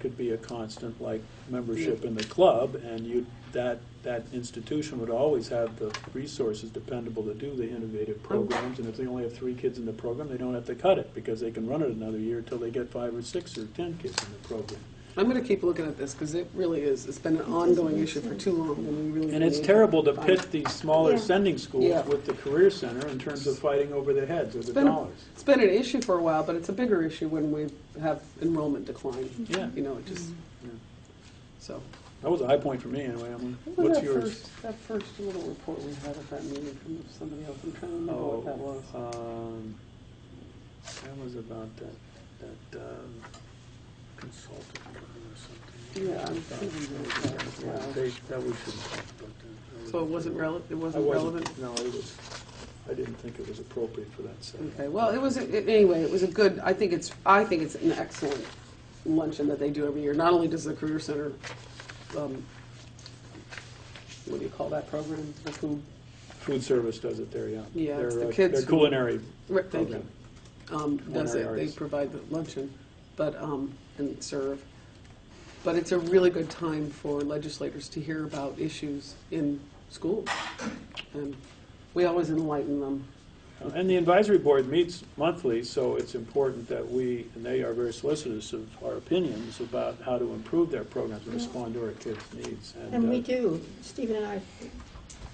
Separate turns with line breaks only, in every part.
could be a constant, like membership in the club, and you, that, that institution would always have the resources dependable to do the innovative
Oh.
programs, and if they only have three kids in the program, they don't have to cut it, because they can run it another year till they get five or six or ten kids in the program.
I'm going to keep looking at this because it really is, it's been an ongoing issue for too long and we really.
And it's
need-
terrible to pit these smaller
Yeah.
sending schools
Yeah.
with the career center in terms of fighting over the heads or the
been a-
dollars.
It's been an issue for a while, but it's a bigger issue when we have enrollment decline.
Yeah.
You know, it just,
Yeah.
so.
That was a high point for me, anyway. Emily.
What was
What's
that
yours?
first, that first little report we had at that meeting from somebody else? I'm trying to remember
Oh,
what that was.
um, That was about that, that um, consultant or something.
Yeah, I'm thinking about that as well.
They- That we shouldn't talk about that. that.
So it wasn't
relevant.
relevant, it
I
wasn't relevant?
wasn't, no, it was, I didn't think it was appropriate for that setting.
Okay, well, it was, it- anyway, it was a good, I think it's, I think it's an excellent luncheon that they do every year. Not only does the Career Center, um, what do you call that program? The food,
Food service does it there, yeah.
Yeah, it's
Their,
the
uh,
kids
Their
who-
culinary
right, thank you,
program.
um, does it, they
Culinary arts.
provide the luncheon, but, um, and serve. But it's a really good time for legislators to hear about issues in schools. And we always enlighten them.
Uh, And the advisory board meets monthly, so it's important that we, and they are very solicitous of our opinions about how to improve their programs and respond to our kids' needs.
And we
uh,
do, Stephen and I,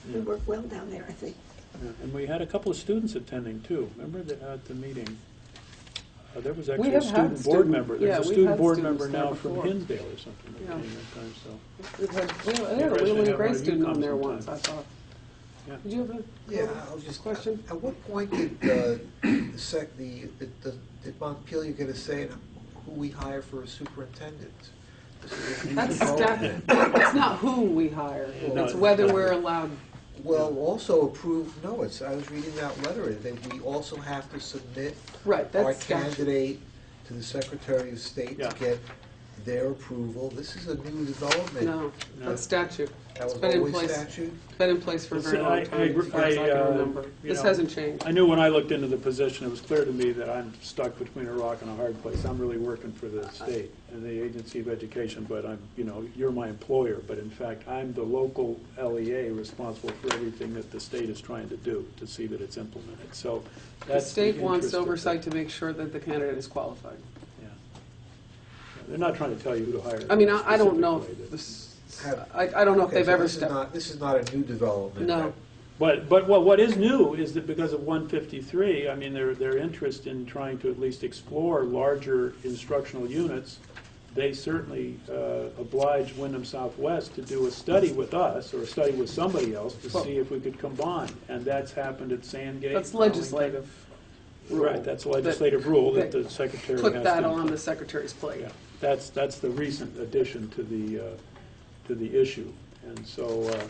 we
yeah,
work well down there, I think.
yeah. And we had a couple of students attending too, remember the- at the meeting? uh, There was
We
actually a
have had
student board
student-
member,
yeah,
there's a
we've
student
had
board
students
member
there
now from
before.
Hinsdale or something that
Yeah.
came that time, so.
We've had, we had
Yeah,
a
Gretchen,
Leland
have one
Gray
of you
student on
come
there
sometime.
once, I thought.
Yeah.
Did you have a?
Yeah, I was just.
Question?
At what point did uh, the sec, the, did- did Montpelier get a say in who we hire for a superintendent? This is a huge
That's
problem.
staff, it's not who we hire,
No,
it's
it's
whether
not.
we're allowed,
Well, also approved, no, it's, I was reading that letter, that we also have to submit
right,
our
that's statute.
candidate to the Secretary of State
Yeah.
to get their approval. This is a new development.
No,
No.
that's statute,
That was
been in
always
place.
statute.
been in place for a
It's-
very
I- I
long time,
agree-
as far as
I,
I can
uh,
remember.
you
This
know,
hasn't changed.
I knew when I looked into the position, it was clear to me that I'm stuck between a rock and a hard place. I'm really working for the state and the agency of education, but I'm, you know, you're my employer, but in fact, I'm the local LEA responsible for everything that the state is trying to do to see that it's implemented, so
The
that's the
state wants
interest of the-
oversight to make sure that the candidate is qualified.
Yeah. They're not trying to tell you who to hire.
I mean, I, I don't know,
specifically.
if this-
Have-
I, I don't know if
Okay,
they've
so
ever
this is
stepped,
not- This is not a new development.
no,
But, but what, what is new is that because of 153, I mean, their, their interest in trying to at least explore larger instructional units, they certainly uh, obliged Wyndham Southwest to do a study with us, or a study with somebody else, to
Well-
see if we could combine. And that's happened at Sandgate.
that's legislative. rule.
Right, that's a legislative rule that the secretary has to.
Put that on the secretary's plate.
Yeah, that's, that's the recent addition to the, uh, to the issue. And so, uh,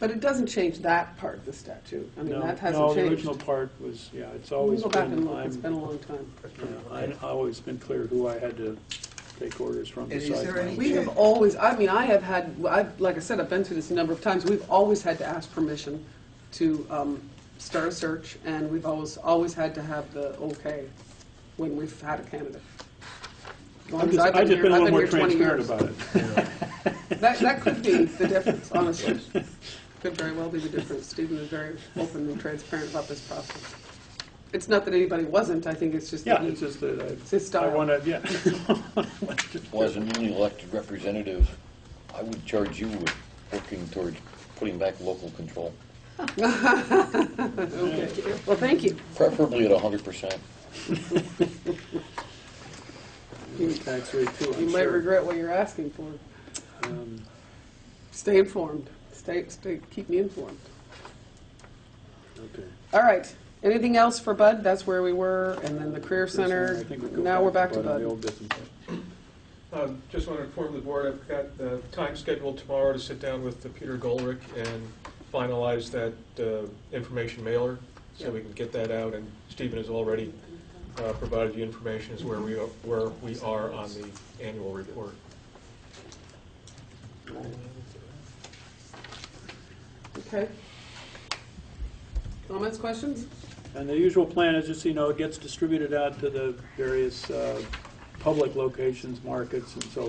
But it doesn't change that part of the statute. I mean,
no,
that
no,
hasn't
the
changed.
original part was, yeah, it's
We'll
always
go
been.
back and look, it's
I'm-
been a long time.
Yeah, I- I've always been clear who I had to take orders from
And is
besides
there any-
my...
We have always, I mean, I have had, I've, like I said, I've been through this a number of times, we've always had to ask permission to, um, start a search, and we've always, always had to have the okay when we've had a candidate.
I've just I've just been a little more transparent about it.
it. That, that could be the difference, honestly. Could very well be the difference. Stephen is very open and transparent about this process. It's not that anybody wasn't, I think it's just that
Yeah,
he
it's just that
It's
I-
his
I
style.
want to, yeah.
Well, as a newly elected representative, I would charge you with working towards putting back local control,
Okay. Well, thank you.
preferably at hundred percent.
Tax rate too,
You
I'm
might
sure.
regret what you're asking for.
Um,
Stay informed. Stay, stay, keep me informed.
okay.
All right. Anything else for Bud? That's where we were, and then the Career
I
Center.
think we go
Now we're back to
the
Bud.
old business.
Um, Just want to inform the board, I've got uh, time scheduled tomorrow to sit down with uh, Peter Goldrick and finalize that uh, information mailer, so we can get that out, and Stephen has already uh, provided you information as where we are, where we are on the annual report.
Okay. Comments, questions?
And the usual plan is just, you know, it gets distributed out to the various uh, public locations, markets, and so